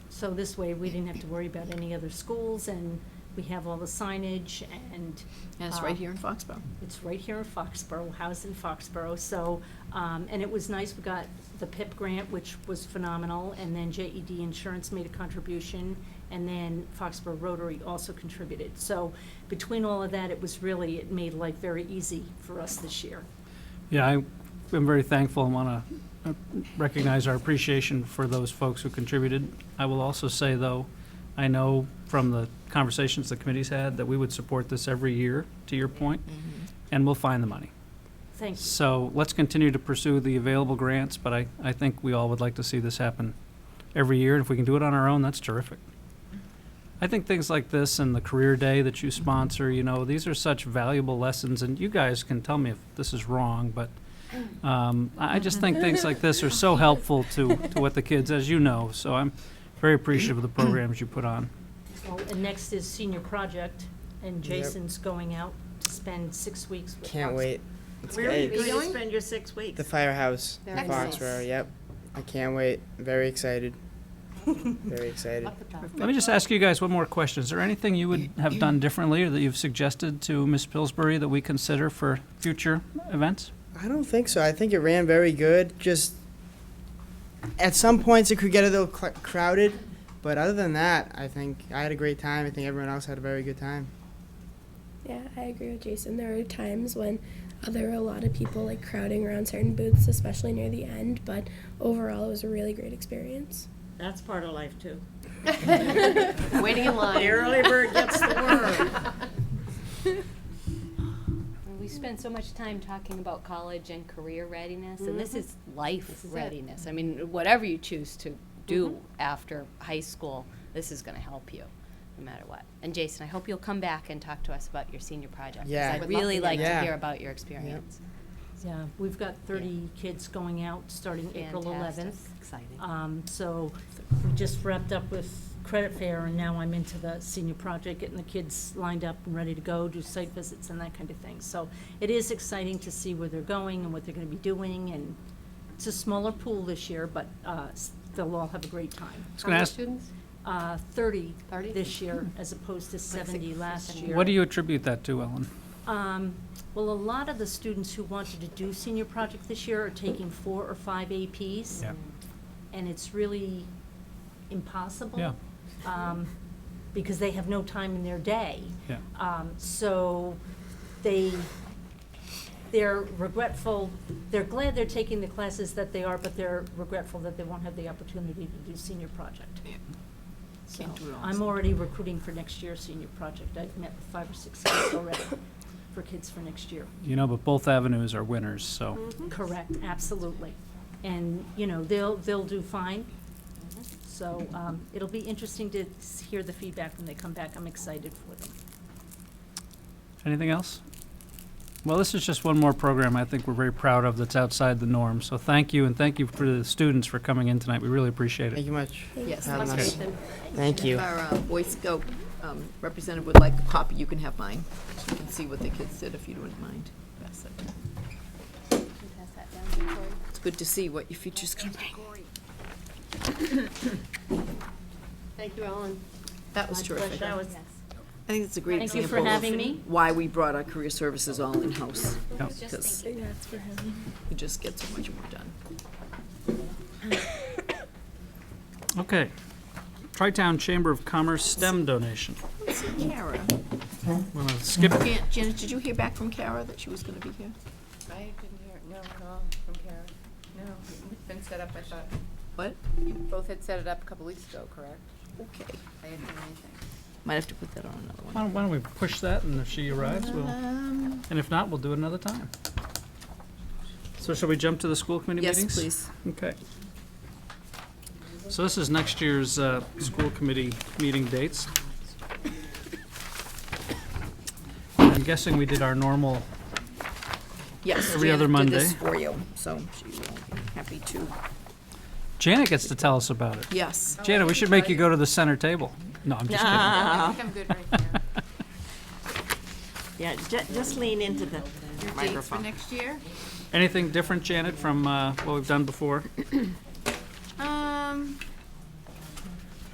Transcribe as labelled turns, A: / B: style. A: So this way, we didn't have to worry about any other schools, and we have all the signage, and.
B: And it's
A: uh,
B: right here in Foxborough.
A: It's right here in Foxborough, housed in Foxborough, so, um, and it was nice, we got the PIP grant, which was phenomenal, and then JED Insurance made a contribution, and then Foxborough Rotary also contributed. So between all of that, it was really, it made life very easy for us this year.
C: Yeah, I am very thankful and want to recognize our appreciation for those folks who contributed. I will also say, though, I know from the conversations the committee's had that we would support this every year, to your point,
B: Mm-hmm.
C: and we'll find the money.
A: Thank you.
C: So let's continue to pursue the available grants, but I, I think we all would like to see this happen every year. If we can do it on our own, that's terrific. I think things like this and the career day that you sponsor, you know, these are such valuable lessons, and you guys can tell me if this is wrong, but um, I I just think things like this are so helpful to, to what the kids, as you know, so I'm very appreciative of the programs you put on.
A: Well, And next is senior project, and Jason's going out to spend six weeks with
D: Can't
A: Foxborough.
D: wait. It's
A: Where are you
D: great.
A: going to
E: going?
A: spend your six weeks?
D: The firehouse in
E: Very nice.
D: Foxborough. Yep. I can't wait. Very excited. Very excited.
C: Let me just ask you guys one more question. Is there anything you would have done differently or that you've suggested to Ms. Pillsbury that we consider for future events?
D: I don't think so. I think it ran very good. Just at some points it could get a little cl- crowded, but other than that, I think I had a great time. I think everyone else had a very good time.
F: Yeah, I agree with Jason. There were times when uh, there were a lot of people like crowding around certain booths, especially near the end, but overall it was a really great experience.
E: That's part of life too.
B: Waiting in line.
E: The early bird gets the worm.
G: We spend so much time talking about college and career readiness, and this is life
E: is it.
G: readiness. I mean, whatever you choose to do after high school, this is going to help you, no matter what. And Jason, I hope you'll come back and talk to us about your senior project. 'cause
D: Yeah.
G: I'd
D: Would
B: love
G: really
B: to
G: like
D: hear.
G: to hear about your experience.
A: Yeah, we've got thirty kids going out starting April
G: Fantastic.
A: eleventh.
G: Exciting.
A: Um, so we just wrapped up with credit fair and now I'm into the senior project, getting the kids lined up and ready to go, do site visits and that kind of thing. So it is exciting to see where they're going and what they're gonna be doing and it's a smaller pool this year, but, uh, s- they'll all have a great time.
C: I was going to ask,
G: students?
A: Uh, thirty Hmm.
G: 30?
A: this year as opposed to seventy last year.
C: what do you attribute that to, Ellen?
A: Um, Well, a lot of the students who wanted to do senior project this year are taking four or five APs.
C: Yeah.
A: And it's really impossible.
C: Yeah.
A: um, Because they have no time in their day.
C: Yeah.
A: Um, So they, they're regretful, they're glad they're taking the classes that they are, but they're regretful that they won't have the opportunity to do senior project. So
B: Can't do it all.
A: I'm already recruiting for next year's senior project. I've met with five or six kids already for kids for next year.
C: You know, but both avenues are winners, so.
A: Mm-hmm. Correct, absolutely. And, you know, they'll, they'll do fine. So um, it'll be interesting to s- hear the feedback when they come back. I'm excited for them.
C: Anything else? Well, this is just one more program I think we're very proud of that's outside the norm. So thank you, and thank you for the students for coming in tonight. We really appreciate
D: Thank
C: it.
D: you much.
B: Yes,
D: Have
B: let's
D: a nice-
B: meet them.
D: Thank you.
B: If our uh, Boy Scout um, representative would like a copy, you can have mine. So you can see what the kids did, if you wouldn't mind. Pass that down.
G: Can you pass that down to Cory?
B: It's good to see what your future's going to bring.
E: Thank you, Ellen.
B: That was
E: My pleasure.
B: terrific.
E: That was
B: I think it's a great
A: Thank you
B: example.
A: for having me.
B: of Why we brought our career services all in-house.
C: Yep.
B: Because
F: That's for him.
B: we just get so much more done.
C: Okay. Tri-Town Chamber of Commerce STEM donation.
B: Kara,
C: Want to skip
B: Jan- Janet, did you hear back from Kara that she was going to be here?
H: I didn't hear, no, at all from Kara. No, it's been set up, I thought.
B: What?
H: You both had set it up a couple weeks ago, correct?
B: Okay.
H: I didn't hear anything.
B: Might have to put that on another one.
C: Why don't, why don't we push that, and if she arrives, we'll,
B: Um,
C: and if not, we'll do it another time. So shall we jump to the school committee
B: Yes,
C: meetings?
B: please.
C: Okay. So this is next year's uh, school committee meeting dates. I'm guessing we did our normal,
B: Yes,
C: Every other
B: Janet did this
C: Monday.
B: for you, so she will be happy to.
C: Janet gets to tell us about it.
B: Yes.
C: Janet, we should make you go to the center table. No, I'm just kidding.
E: Uh-huh.
H: I think I'm good right here.
E: Yeah, ju- just lean into the
H: Your dates for next year?
C: Anything different, Janet, from uh, what we've done before?
H: Um,